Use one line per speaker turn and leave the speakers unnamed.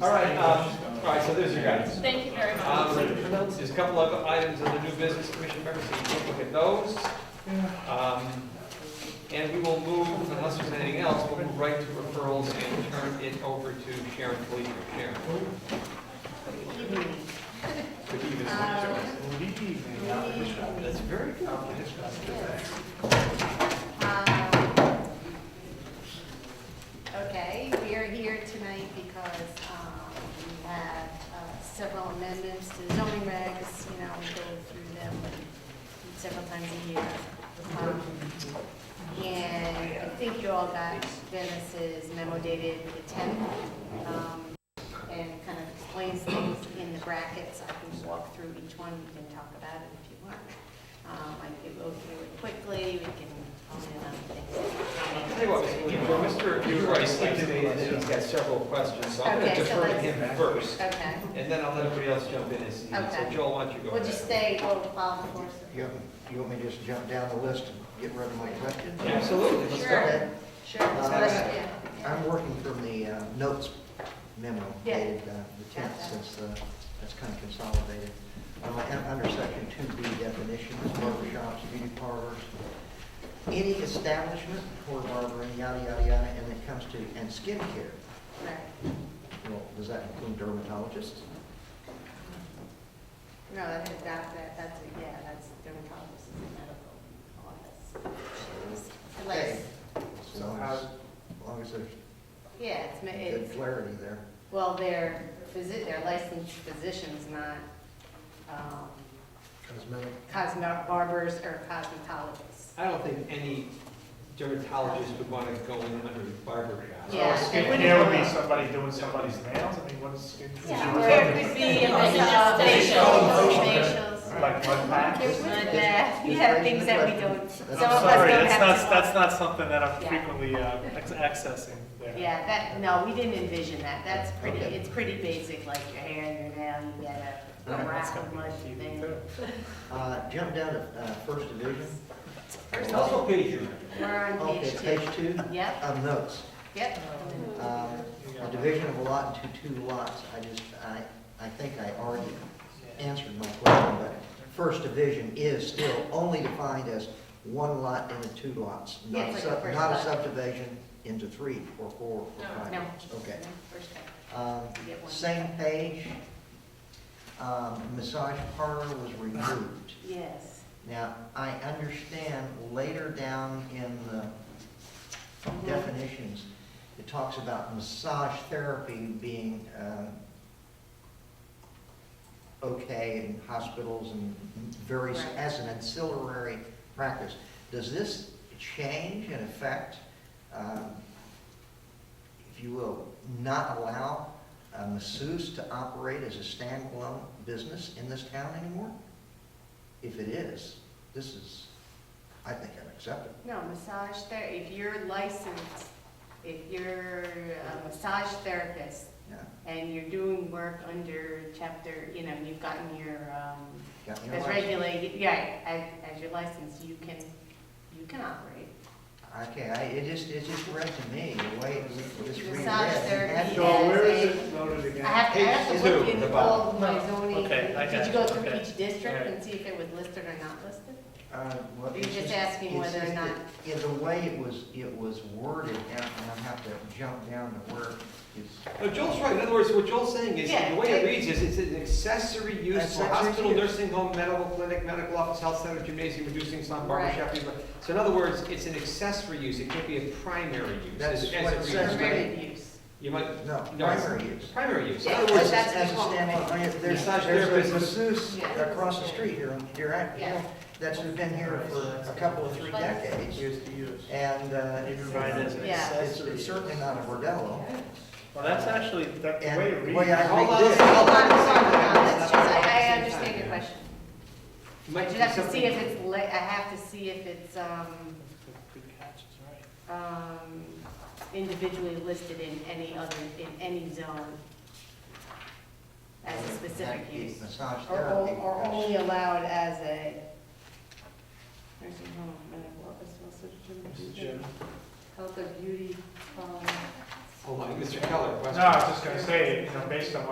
All right, um, all right, so there's your guidance.
Thank you very
Um,
much.
There's a couple of items of the new business commission members, so you can look at those. Um, And we will move, unless there's anything else, we'll move right to referrals and turn it over to Sharon Felicia. Sharon,
Good evening.
could you just-
Um,
That's very complicated.
Um, Okay, we are here tonight because um, we have uh, several amendments to zoning regs, you know, we go through them several times a year. Um, And I think you all got Dennis's memo dated the 10th, um, and it kind of explains things in the brackets. I can walk through each one, we can talk about it if you want. Um, I can go through it quickly, we can hone in on things.
Tell you what, Mr. Rice indicated that he's got several questions, so I'm going to
Okay, so
defer to
let's-
him first,
Okay,
and then I'll let everybody else jump in as needed. So
Okay.
Joel, why don't you go
we'll just
ahead?
stay, we'll follow the course.
You want me- you want me to just jump down the list and get rid of my questions?
Absolutely, let's go.
Sure, sure.
Uh,
Yeah.
I'm working from the uh, notes memo
Yeah.
dated uh, the 10th, since uh, that's kind of consolidated. Um, and Under section 2B definitions, barber shops, beauty parlors, any establishment for barbering, yada, yada, yada, and it comes to, and skincare.
Right.
Well, does that include dermatologists?
No, that, that, that, that's, yeah, that's dermatologist and medical office. Like,
Okay. As
So
long
how-
as, as long as there's
yeah, it's, ma-
good
it's,
clarity there.
well, they're physi, they're licensed physicians, not, um,
Cosmetic.
cosmetic barbers or cosmetologists.
I don't think any dermatologist would want to go in under the barber shop.
Yeah,
So
it wouldn't
skincare would
be-
be somebody doing somebody's nails, I mean, what's skincare?
Yeah,
Is
or
there-
it could be a
Like
uh, facials,
facials.
facials.
Like mud packs?
There's mud bath, uh, we have things that we don't, some of
I'm
us
Sorry,
don't
that's
have
not, that's
to walk.
not something that I'm
Yeah.
frequently uh, ex- accessing there.
Yeah, that, no, we didn't envision that, that's pretty,
Okay.
it's pretty basic, like your hair and your nail, you get a
All
a
right, that's
wrap
gotta
of
be
mud
TV
thing.
too.
Uh, Jump down to uh, first division. oh,
First
That's
of all,
what page you're on.
we're on
Okay,
page
page
two.
two,
Yep,
of notes.
yep.
Um,
Uh,
A division of a lot into two lots, I just, I, I think I already answered my question, but first division is still only defined as one lot into two lots,
Yeah,
not
it's like
sub-
the first
not a
lot.
subdivision into three or four or five
No.
lots. Okay.
First step,
Um,
you get one.
Same page, um, massage parlor was removed.
Yes.
Now, I understand later down in the definitions, it talks about massage therapy being um, okay in hospitals and various,
Right.
as an ancillary practice. Does this change and affect, um, if you will, not allow a masseuse to operate as a standalone business in this town anymore? If it is, this is, I think unacceptable.
No, massage ther, if you're licensed, if you're a massage therapist
Yeah,
and you're doing work under chapter, you know, you've gotten your, um,
got me on
As
my-
regulated, yeah, as, as your license, you can, you can operate.
Okay, I, it just, it just read to me, the way it was just reread.
Massage therapy.
So where is it noted
I
again?
have, to- I
Page
have to
two,
look
the
in
bottom.
all of my zoning.
Okay, I got
Did you
you,
go through
okay.
each district
Alright.
and see if it was listed or not listed?
Uh, well,
You're
it's
just asking
it's
whether or
just
not-
that- Yeah, the way it was, it was worded, and and I have to jump down to where it's.
No, Joel's right. In other words, what Joel's saying is,
Yeah,
the way it
it-
reads is, it's an accessory use for
Accessory
hospital,
use.
nursing home, medical clinic, medical office, health center, gymnasium, reducing some barber
Right.
shop. things like- So in other words, it's an accessory use. It can't be a primary use.
That's
as- as
what
it
it
reads.
says.
Permitted use.
You might,
No,
No, it's-
primary use.
primary use. In
Yeah,
other
but
words,
that's
As a
the whole-
standalone, I- there's,
Massage
there's a
therapist.
masseuse
Yeah.
across the street here, on Deer Act,
Yeah.
that's been here for a couple of three
But-
decades,
Years to use.
and, uh,
They
it's-
provide as an
Yeah.
it's
accessory.
it's certainly not a bordello.
Well, that's actually, that, the
And
way it
the way
reads,
I
Hold
read
on,
this.
Oh,
hold
Hold
on,
on,
hold on,
hold on,
hold
let's
on.
just, I, I understand your question. I
Might
just
be
have to see
something-
if it's, li- I have to see if it's, um,
good catch, it's right.
um, individually listed in any other, in any zone as a specific
That'd be
use.
Massage
Or,
therapy.
o- or
because-
only allowed as a nursing home, medical office, health center,
Mr.
gym,
Chairman.
health or beauty, um,
Mr. Keller, question?
No, I was just gonna say, you know, based on what